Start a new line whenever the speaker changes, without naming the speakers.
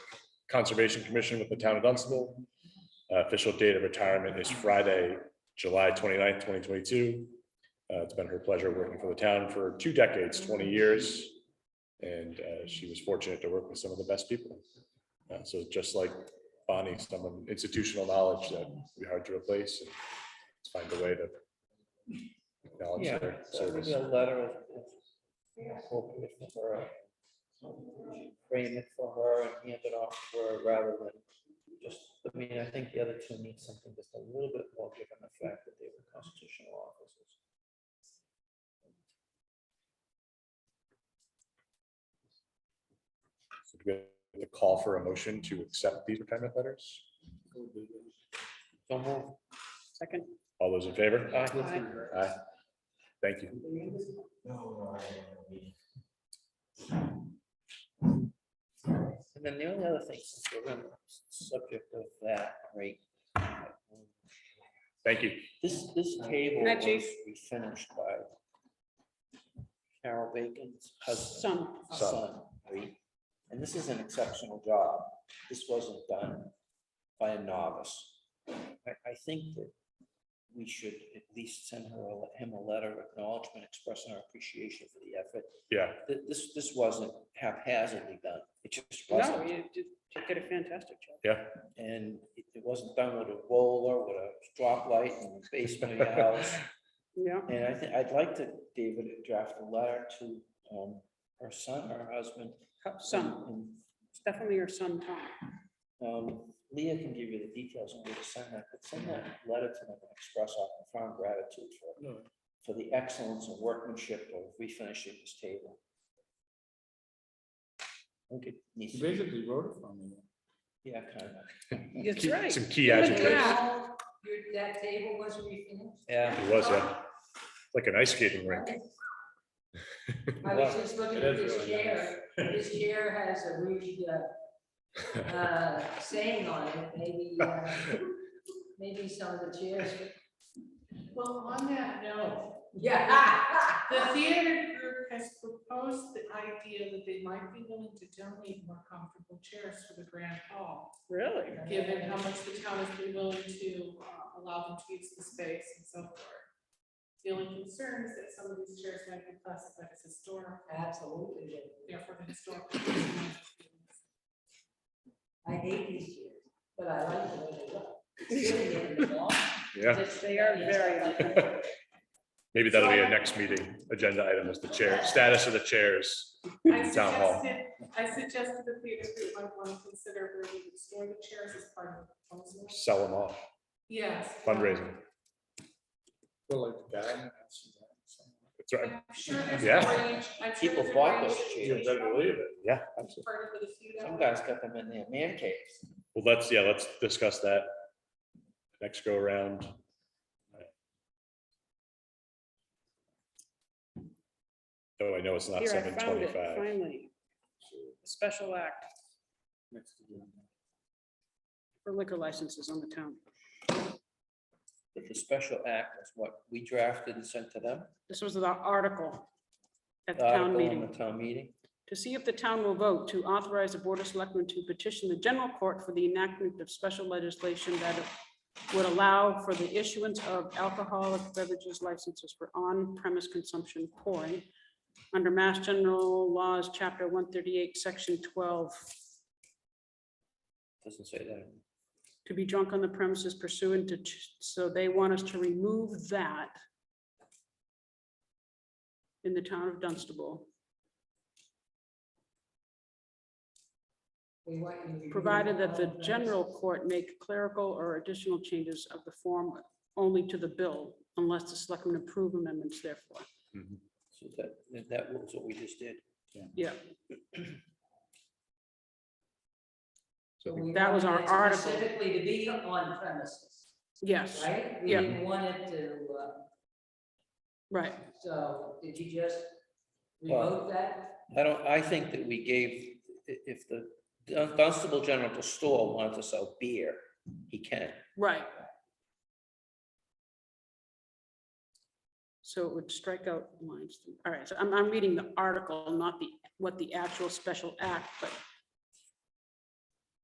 Conservation Commission with the town of Dunstable. Uh, Official date of retirement is Friday, July 29th, twenty-two. Uh, It's been her pleasure working for the town for two decades, twenty years. And uh, she was fortunate to work with some of the best people. Uh, So just like Bonnie, someone institutional knowledge that we hard to replace. and Let's find a way to acknowledge
Yeah,
their
so
service.
maybe a letter. of- of hope if her, Frame it for her and hand it off to her rather than just, I mean, I think the other two need something just a little bit more given the fact that they were constitutional officers.
So do we have The call for a motion to accept these retirement letters.
So move. uh,
Second.
All those in favor? Aye.
Aye.
Uh, Thank you.
And then the only other thing, since we're on the subject of that, right?
Thank you.
This, this table
Night,
was
Chief.
refinished by Carol Bacon's husband.
Some,
Son.
son, right? And this is an exceptional job. This wasn't done by a novice. I, I think that we should at least send her, a le- him a letter of acknowledgement expressing our appreciation for the effort.
Yeah,
Th- This, this wasn't haphazardly done. It just
no,
wasn't.
you did, you did a fantastic job.
yeah.
And it it wasn't done with a roller, with a drop light in the basement of your house.
Yeah,
And I think, I'd like to, David, draft a letter to, um, her son, her husband.
Cup- some,
and-
it's definitely your son, Tom.
Um, Leah can give you the details on where to send that, but send that letter to them and express our profound gratitude for, for the excellence and workmanship of refinishing this table. Okay.
He basically wrote it for me.
Yeah, kind of.
That's
Key-
right.
Some key
Look at
adjectives.
that.
Now, your- That table was refinished?
Yeah.
It was, yeah. Like an ice skating rink.
I was just looking
It
at
is
this
really nice.
chair. This chair has a rude uh, uh, saying on it, maybe, uh, maybe some of the chairs.
Well, on that note,
Yeah.
the theater group has proposed the idea that they might be willing to donate more comfortable chairs for the grand hall,
Really?
given how much the town has been willing to uh, allow them to use the space and so forth. The only concern is that some of these chairs might be classified as historic,
Absolutely.
therefore the historic. commission might be-
I hate these chairs, but I like the way they look. Sitting in the wall.
Yeah,
They are very uncomfortable.
maybe that'll be a next meeting agenda item is the chair, status of the chairs.
I
Town hall.
suggested, I suggested the theater group might want to consider where we would store the chairs as part of the proposal.
Sell them off,
Yes.
fundraising.
Well, like the guy. and that's-
That's right.
I'm sure there's.
Yeah.
arrange- I'm sure
People
there's
bought those chairs.
arrange-
believe it.
Yeah, absolutely.
Part of it is you
Some
know.
guys got them in their man caves.
Well, let's, yeah, let's discuss that next go around. Oh, I know it's not
Here, I
seven
found it,
twenty-five.
finally. A Special act
Next to you.
for liquor licenses on the town.
But the special act is what we drafted and sent to them.
This was the article at the
article
town
in
meeting.
The town meeting.
To see if the town will vote to authorize the Board of Selectmen to petition the general court for the enactment of special legislation that would allow for the issuance of alcoholic beverages licenses for on-premise consumption pouring under Mass General Laws, Chapter 138, Section 12,
Doesn't say that.
to be drunk on the premises pursuant to, ch- so they want us to remove that in the town of Dunstable.
They want you to remove
provided that the
all of
general court make clerical or additional changes of the form only to the bill unless the selectmen approve amendments therefore.
So that, that- that was what we just did.
Yeah,
So we
That was
wanted
our
it
article.
Specifically to be on premises,
yes,
right? We
Yeah.
didn't want it to, uh,
right.
So did you just
Well-
revoke that?
I don't, I think that we gave, i- if the Dun- Dunstable General Store wanted to sell beer, he can.
Right. So it would strike out lines. All right, so I'm, I'm reading the article, not the, what the actual special act, but